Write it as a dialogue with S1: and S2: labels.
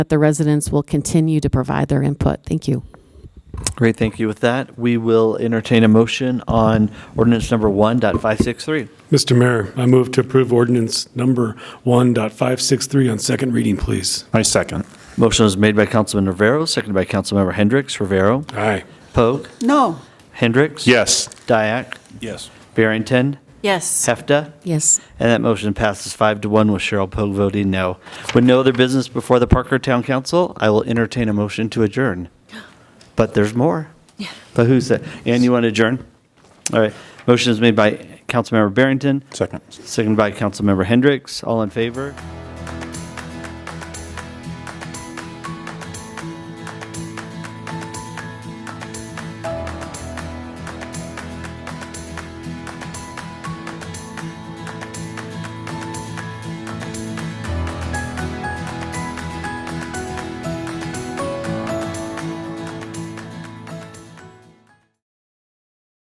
S1: that the residents will continue to provide their input. Thank you.
S2: Great, thank you. With that, we will entertain a motion on ordinance number 1.563.
S3: Mr. Mayor, I move to approve ordinance number 1.563 on second reading, please.
S4: I second.
S2: Motion is made by Councilman Rivera, seconded by Councilmember Hendricks. Rivera,
S3: Aye.
S2: Pogue,
S5: No.
S2: Hendricks.
S4: Yes.
S2: Dyak,
S4: Yes.
S2: Barrington,
S5: Yes.
S2: Hefta.
S1: Yes.
S2: And that motion passes five to one with Cheryl Pogue voting no. With no other business before the Parker Town Council, I will entertain a motion to adjourn. But there's more. But who's that? And you want to adjourn? All right. Motion is made by Councilmember Barrington,
S4: Second.
S2: seconded by Councilmember Hendricks. All in favor?